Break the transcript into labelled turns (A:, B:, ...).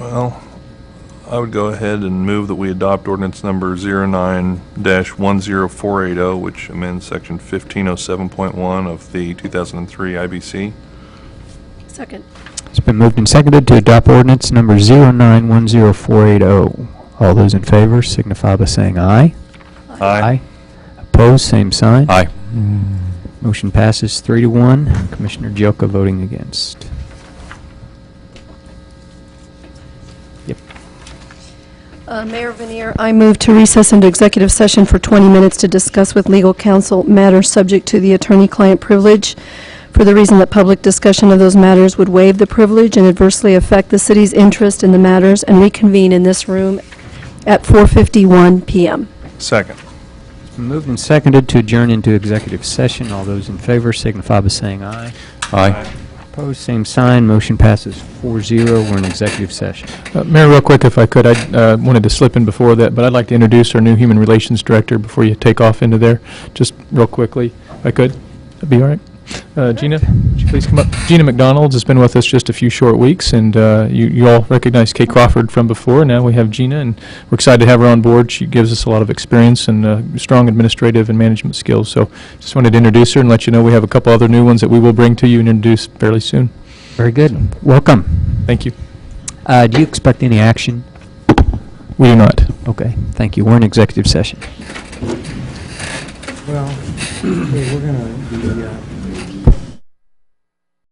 A: Well, I would go ahead and move that we adopt ordinance number 09-10480, oh, which amends section 1507.1 of the 2003 IBC.
B: Second.
C: It's been moved and seconded to adopt ordinance number 0910480. oh. All those in favor signify by saying aye. Opposed, same sign.
D: Aye.
C: Motion passes three to one. Commissioner Jelka voting against. Yep.
B: Uh, Mayor Vanier, I move to recess into executive session for 20 minutes to discuss with legal counsel matters subject to the attorney-client privilege for the reason that public discussion of those matters would waive the privilege and adversely affect the city's interest in the matters and reconvene in this room at 4:51 PM.
A: Second.
C: It's been moved and seconded to adjourn into executive session. All those in favor signify by saying aye.
D: Aye.
C: Opposed, same sign. Motion passes 4-0. We're in executive session.
E: Uh, Mayor, real quick, if I could, I uh, wanted to slip in before that, but I'd like to introduce our new Human Relations Director before you take off into there, just real quickly, if I could. That'd be all right. Uh, Gina, would you please come up? Gina McDonald has been with us just a few short weeks, and uh, you you all recognize Kay Crawford from before. Now we have Gina, and we're excited to have her on board. She gives us a lot of experience and uh, strong administrative and management skills. So just wanted to introduce her and let you know we have a couple other new ones that we will bring to you and introduce fairly soon.
C: Very good. Welcome.
E: Thank you.
C: Uh, Do you expect any action?
E: We do not.
C: Okay, thank you. We're in executive session.
F: Well, hey, we're gonna be, uh,